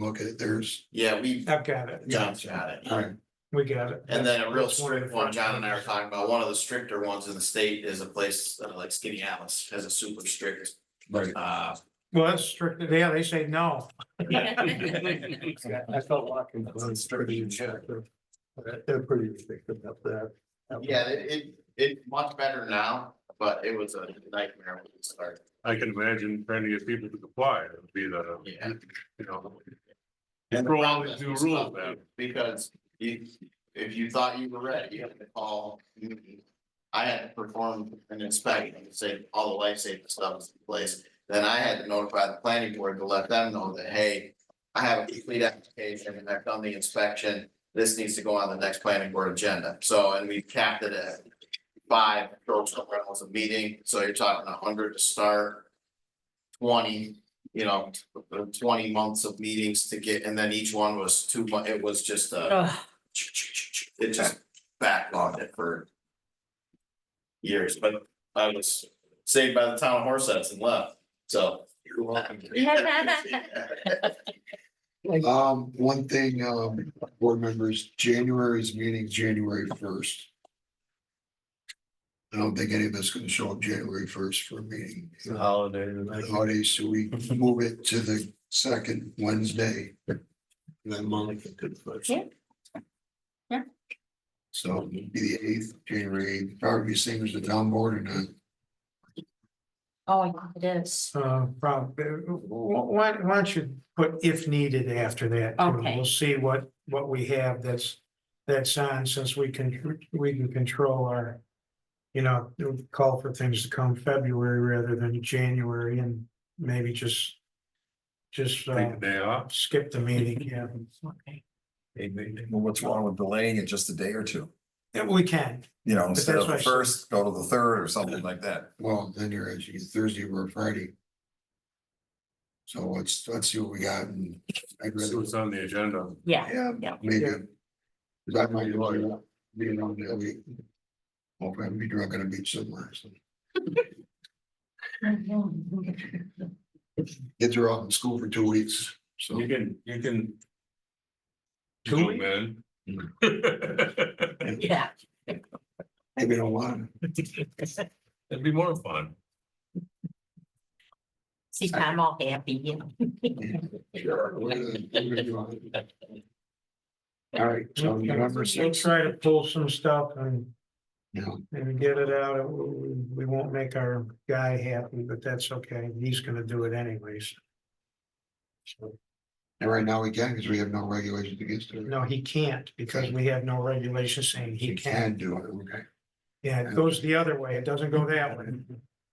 look at theirs. Yeah, we, I've got it. John's got it. All right, We got it. And then a real That's one of the strict one, John and I were first- talking about, one of the stricter ones in the state is a place uh, like Skinny Alice has a super strict, right. uh. Well, that's strict, yeah, they say no. I felt like it was pretty objective. But They're pretty restrictive about that. Yeah, it, it, it's much better now, but it was a nightmare when we started. I can imagine trying to get people to comply, it would be the, Yeah. you know. You throw all these new rules out. Because if, if you thought you were ready, you had to call. Newton. I had to perform an inspection and say all the life safety stuff is in place. Then I had to notify the planning board to let them know that, hey, I have a complete application and I've done the inspection. This needs to go on the next planning board agenda. So, and we capped it at five, throw somewhere else a meeting. So you're talking a hundred to start. Twenty you know, twenty months of meetings to get, and then each one was two mu- it was just a. Oh, It just backlogged it for. Years, but I was saved by the town of Horseheads and left, so. You're welcome. Um, one thing, um, board members, January's meeting, January first. I don't think any of us can show up January first for a meeting. holiday. the holidays, so we move it to the second Wednesday. That Monica could push. Yeah. Yeah. So it'll be the eighth, January, 8th. probably the same as the town board and uh, Oh, yeah, it is. Uh, probably, why, why don't you put if needed after that? too? Okay. We'll see what, what we have that's, that's on since we can, we can control our. You know, call for things to come February rather than January and maybe just. Just uh, Take the day off, skip the meeting, yeah. Well, what's wrong with delaying it just a day or two? Yeah, We can, You know, that's instead of the what I said. first, go to the third or something like that. well, then you're actually Thursday or Friday. So let's, let's see what we got and I'd so rather, it's on the agenda. Yeah, yeah, Yeah. maybe. Cause I might be around that week. Hope I'd be drunk on a beach somewhere. so. Kids are off in school for two weeks, so. You can, you can. Two Zoom in. yeah. Maybe don't want to. It'd be more fun. See, I'm all happy, you know. Sure. All right, so November we'll sixth, try to pull some stuff and. you know, and get it out. It- We we won't make our guy happy, but that's okay. He's gonna do it anyways. So, and right now we can, because we have no regulations against it. No, he can't because we have no regulation saying he We can can. do it, okay. Yeah, it goes the other way. It doesn't go that way.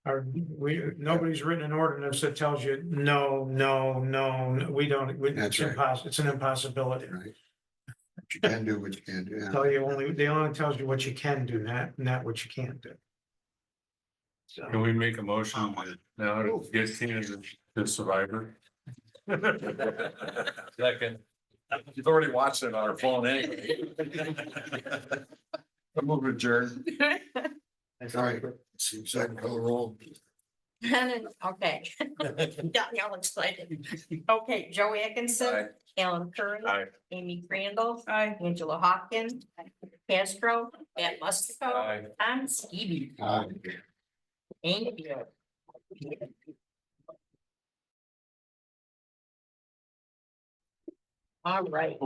Our, we, nobody's written an ordinance that tells you, no, no, no, no, we don't, we- it's That's right. impossible, it's an impossibility. Right. But You can do what you can do. yeah. Tell you only, they only tells you what you can do, not, not what you can't do. So. Can we make a motion to- now to get seen as the survivor? Second. You've uh, already watched it on our phone anyway. I'm over adjourned. All right, see, second call roll. Okay. Got y'all excited. Okay, Joe Atkinson, Alan Curry. Aye. Amy Crandall. Angela Hopkins. Castro, Matt Mustico. Tom Skibby. Aye. Thank you. All right.